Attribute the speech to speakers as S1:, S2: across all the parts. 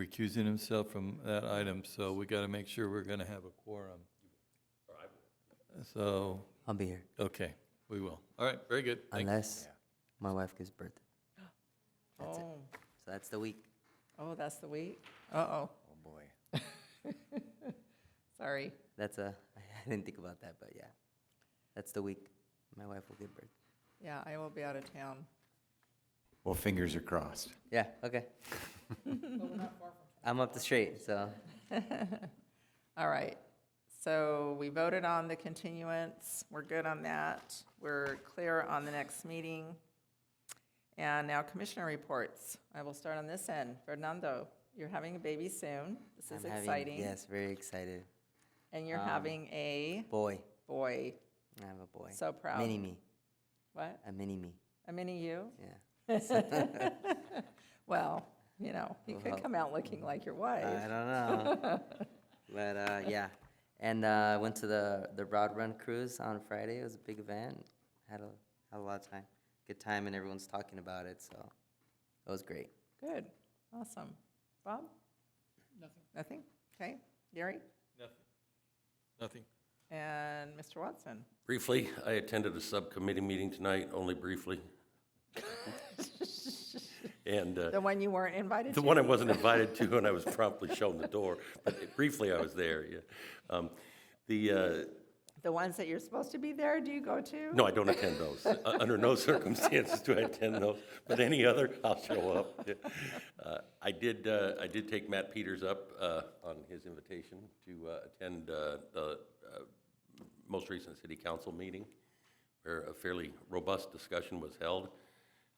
S1: recusing himself from that item, so we got to make sure we're going to have a quorum. So,
S2: I'll be here
S1: okay, we will. All right, very good. Thank you.
S2: unless my wife gives birth. That's it.
S3: Oh,
S2: So that's the week.
S3: oh, that's the week? Uh-oh,
S4: Oh, boy.
S3: sorry.
S2: That's a. I didn't think about that, but yeah, that's the week my wife will give birth.
S3: Yeah, I will be out of town.
S4: Well, fingers are crossed.
S2: Yeah. Okay. I'm up the street, so
S3: All right, so we voted on the continuance, we're good on that, we're clear on the next meeting. And now commissioner reports. I will start on this end. Fernando, you're having a baby soon. This is
S2: I'm having-
S3: exciting.
S2: yes, Um, very excited.
S3: And you're having a
S2: Boy,
S3: boy.
S2: I have a boy.
S3: So proud.
S2: Mini me,
S3: What?
S2: a mini me.
S3: A mini you?
S2: Yeah.
S3: Well, you know, you could
S2: Well,
S3: come out looking like your wife.
S2: I don't know. but uh, yeah, and uh, I went to the the Broad Run cruise on Friday. It was a big event. Had a had a lot of time, good time, and everyone's talking about it. So it was great.
S3: Good, awesome. Bob? Nothing. Nothing? Okay. Gary?
S1: Nothing.
S3: And Mr. Watson?
S5: Briefly, I attended a subcommittee meeting tonight, only briefly. And uh,
S3: The one you weren't invited
S5: the
S3: to?
S5: one I wasn't invited to, and I was promptly shown the door, but briefly I was there, yeah. Um, The, uh,
S3: The ones that you're supposed to be there, do you go to?
S5: no, I don't attend those. U- Under no circumstances do I attend those, but any other, I'll show up. yeah. Uh, I did, uh, I did take Matt Peters up uh, on his invitation to uh, attend uh, the uh, most recent city council meeting, where a fairly robust discussion was held.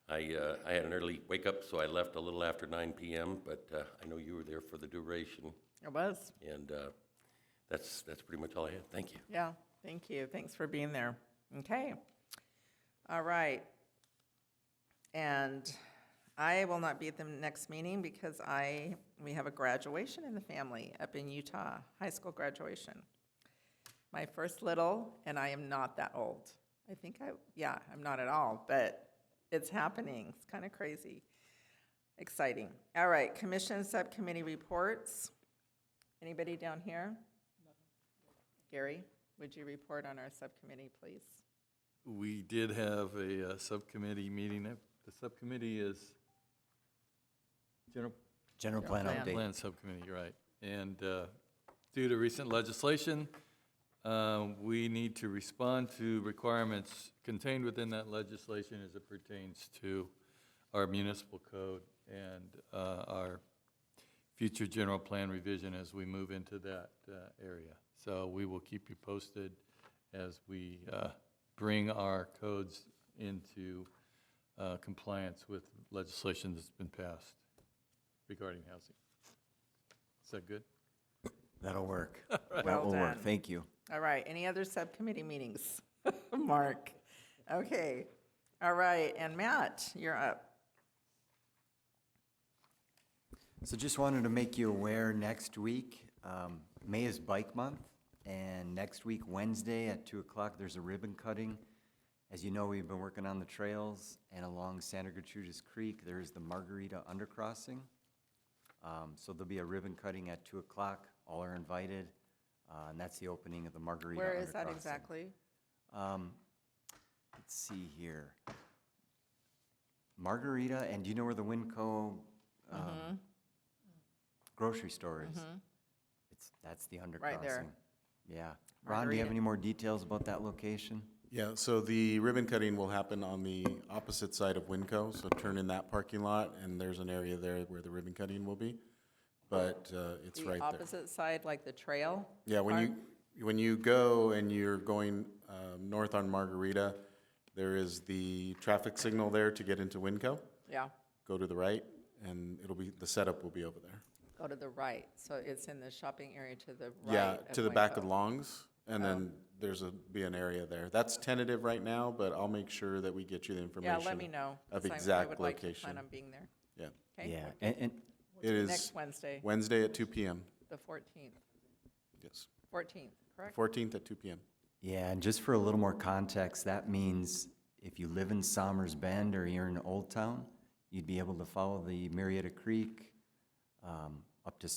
S5: I, uh, I had an early wake-up, so I left a little after 9 PM, but uh, I know you were there for the duration,
S3: It was,
S5: and uh, that's, that's pretty much all I had. Thank you.
S3: yeah. Thank you. Thanks for being there. Okay. All right. And I will not be at the next meeting because I, we have a graduation in the family up in Utah, high school graduation. My first little, and I am not that old. I think I, yeah, I'm not at all, but it's happening. It's kind of crazy. Exciting. All right, commission subcommittee reports. Anybody down here? Gary, would you report on our subcommittee, please?
S1: We did have a uh, subcommittee meeting. Uh, The subcommittee is General
S4: General plan
S3: plan.
S4: update.
S1: Plan Subcommittee, you're right. And uh, due to recent legislation, uh, we need to respond to requirements contained within that legislation as it pertains to our municipal code and uh, our future general plan revision as we move into that uh, area. So we will keep you posted as we uh, bring our codes into uh, compliance with legislation that's been passed regarding housing. Is that good?
S4: That'll work.
S3: Well
S4: That will work.
S3: done.
S4: Thank you.
S3: All right, any other subcommittee meetings? Mark, okay. All right, and Matt, you're up.
S4: So just wanted to make you aware, next week, um, May is Bike Month, and next week, Wednesday at two o'clock, there's a ribbon cutting. As you know, we've been working on the trails, and along Santa Gertrudis Creek, there is the Margarita Undercrossing. Um, so there'll be a ribbon cutting at two o'clock, all are invited, uh, and that's the opening of the Margarita Undercrossing.
S3: Where is that exactly?
S4: Um, let's see here. Margarita, and do you know where the Winco
S3: Mm-hmm.
S4: um, grocery store is? It's, that's the undercrossing.
S3: Right there.
S4: Yeah. Ron, do you
S3: Margarita.
S4: have any more details about that location?
S6: Yeah, so the ribbon cutting will happen on the opposite side of Winco, so turn in that parking lot, and there's an area there where the ribbon cutting will be. But uh, it's
S3: The
S6: right there.
S3: opposite side, like the trail?
S6: Yeah, when you, when you go and you're going um, north on Margarita, there is the traffic signal there to get into Winco.
S3: Yeah,
S6: Go to the right, and it'll be, the setup will be over there.
S3: go to the right, so it's in the shopping area to the Oh. right.
S6: Yeah, to the back of
S3: Winco.
S6: Longs, and then there's a, be an area there. That's tentative right now, but I'll make sure that we get you the
S3: Yeah,
S6: information.
S3: let me know.
S6: Of
S3: 'cause I-
S6: exact
S3: I would like to plan
S6: location.
S3: on being there,
S6: Yeah.
S3: okay?
S4: Yeah, and, and
S6: It is
S3: Next Wednesday,
S6: Wednesday at two PM,
S3: the 14th,
S6: yes.
S3: 14th, correct?
S6: Fourteenth at two PM.
S4: Yeah, and just for a little more context, that means if you live in Somers Bend or you're in Old Town, you'd be able to follow the Marietta Creek, um,